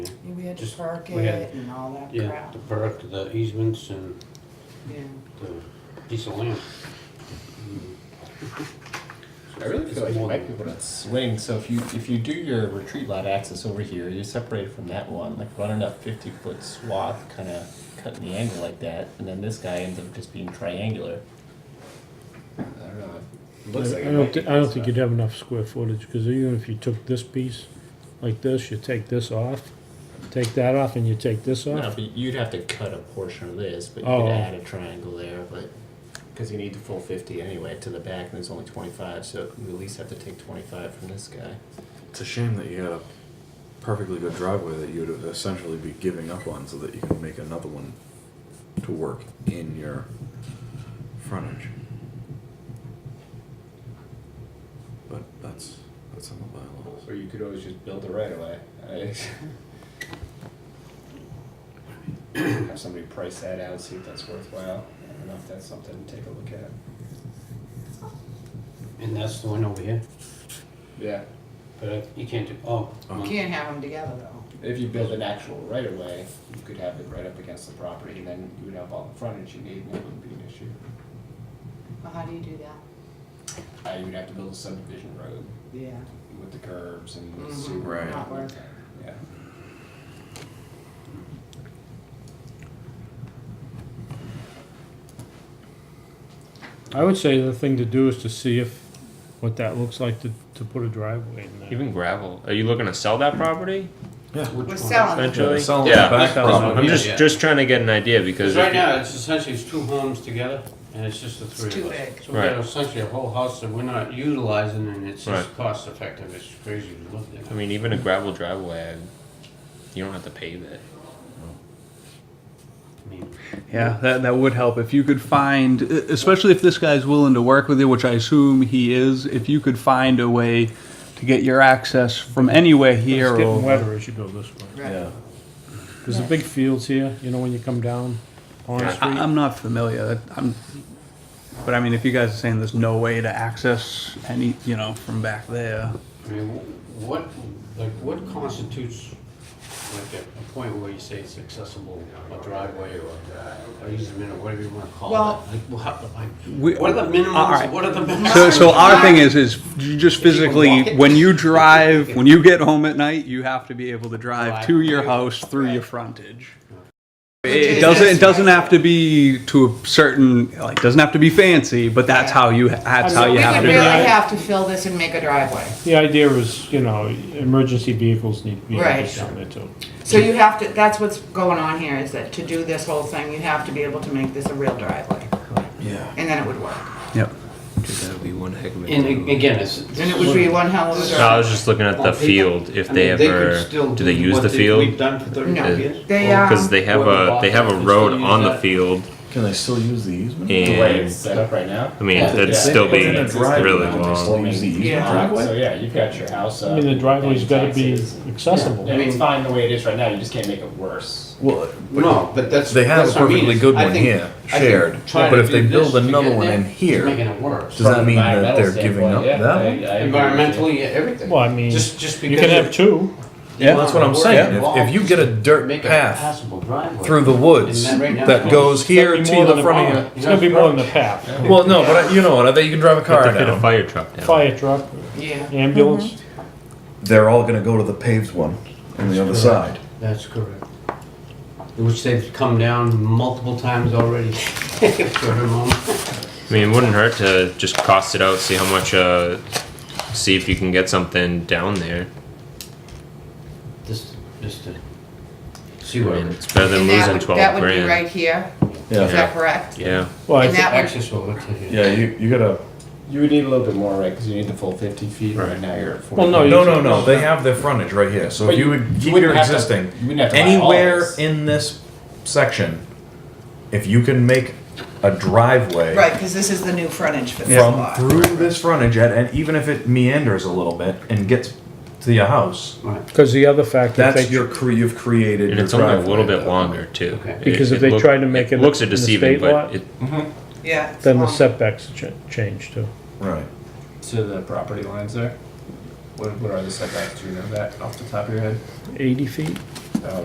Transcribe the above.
we had to Just- park we had- it and all that Yeah, crap. the park, the easements and Yeah. the piece of land. I really feel like It's you more might than- be able to swing. So if you if you do your retreat lot access over here, you're separated from that one. Like running a fifty foot swath, kind of cutting the angle like that, and then this guy ends up just being triangular. I don't know. It looks like I it don't, might thi- be I don't think stuff. you'd have enough square footage, because even if you took this piece like this, you take this off, take that off, and you take this No, off. but you'd have to cut a portion of this, but you Oh. could add a triangle there, but because you need the full fifty anyway to the back, and there's only twenty five, so we at least have to take twenty five from this guy. It's a shame that you got a perfectly good driveway that you would essentially be giving up on so that you can make another one to work in your frontage. But that's that's in the bylaws. Or you could always just build it right away. Have somebody price that out, see if that's worthwhile. I don't know if that's something to take a look at. And that's the one over here, Yeah, but I- you can't do, oh. You well, can't have them together though. if you build an actual right of way, you could have it right up against the property, and then you would have all the frontage you need, and it wouldn't be an issue. Well, how do you do that? Uh, you would have to build a subdivision road Yeah. with the curbs and the Mhm. sewer. Right. Not worth it. Yeah. I would say the thing to do is to see if, what that looks like to, to put a driveway in there. Even gravel. Are you looking to sell that property which We're one? selling. eventually? Yeah, selling the back property. I'm just Yeah. just trying to get an idea because Because right if you- now, it's essentially, it's two homes together, and it's just the three too of us. big. So we Right. got essentially a whole house that we're not utilizing, and it's just Right. cost effective, it's crazy to look at. I mean, even a gravel driveway, you don't have to pave it. I mean, Yeah, that, that would help. If you could find, e, especially if this guy's willing to work with you, which I assume he is, if you could find a way to get your access from anywhere here It's getting or. wetter as you go this way. Right. There's the big fields here, you know, when you come down Pond Yeah. Street. I, am not familiar. That- I'm, but I mean, if you guys are saying there's no way to access any, you know, from back there. I mean, wh- what, like, what constitutes, like, a- a point where you say it's accessible, a driveway or a easement or whatever you wanna call it? Well- Like, what, like, We- what are the All minimums, right. what are the So, maximums? so uh, our thing is, is you just physically, when you drive, when you get home at night, you have to be able to drive to your house through your frontage. It doesn't, it doesn't have to be to a certain, like, doesn't have to be fancy, but that's how you, that's how We you have would to really drive. have to fill this and make a driveway. The idea is, you know, emergency vehicles need to be able to Right. down there too. So you have to, that's what's going on here, is that to do this whole thing, you have to be able to make this a real driveway. Yeah. And then it would work. Yep. That would be one heck of And a- again, it's. And it would be one hell of a No, I driveway. was just looking at Well, the people- field. If I they mean, could ever still do they use what the they- We've field done for No. thirty-five years. They, um, because they have Whoever a bought they have it, a they road still use on the that. field Can they still use the easement? The way it's and. set up right now. I mean, Yeah. that'd Yeah. still be It's in a driveway. really Can they still long. use the easement Yeah. driveway? So yeah, you've got your house. I mean, the driveway's gotta be accessible. I mean, it's fine the way it is right now. You just can't make it worse. Well, No, but that's. They have that's a what I mean, perfectly is good I one think- here, I think shared, trying but to if do they build this to another get one there in is here, Making it worse, does that From mean that environmental they're giving standpoint, up yeah, that I- one? I agree with you. environmentally, everything. Well, I mean, Just, just you because. can you're- have two. Yeah. That's what I'm saying. If, if you get a dirt Make a path passable driveway. through the woods And then right now- that goes here to It's gonna be more the than front a- of It's gonna be more than the path. your. Well, no, but I- you know what? I bet you can drive a Have car to fit a down. fire truck down. Fire truck, yeah. ambulance. They're all going to go to the paved one on the other side. That's correct. Which they've come down multiple times already. For her mom. I mean, it wouldn't hurt to just cost it out, see how much, uh, see if you can get something down there. Just, just to I see what mean, it's better than And that losing would- twelve That would be grand. right here, is Yeah. that correct? Yeah, Well, I And thi- that would access will look like. Yeah, you, you gotta. You would need a little bit more, right? Because you need the full fifty feet. Right now you're at forty. Well, no, No, no, no. They have their frontage right here. So But if you you- would you keep wouldn't your have to- existing you wouldn't have to buy all anywhere this. in this section, if you can make a driveway Right, because this is the new frontage for this from lot. through this frontage, at, and even if it meanders a little bit and gets to your house, Right, Because the other factor, if that's they, your cre- you've created. and your it's only a driveway little at bit that longer too. Okay. It- Because if it they look- tried to make it Looks are in the deceiving, state but lot- it, Yeah. it's then the long. setbacks ch- change too. point. Right. to the property lines there. What, what are the setbacks? Do you know that off the top of your head? Eighty feet?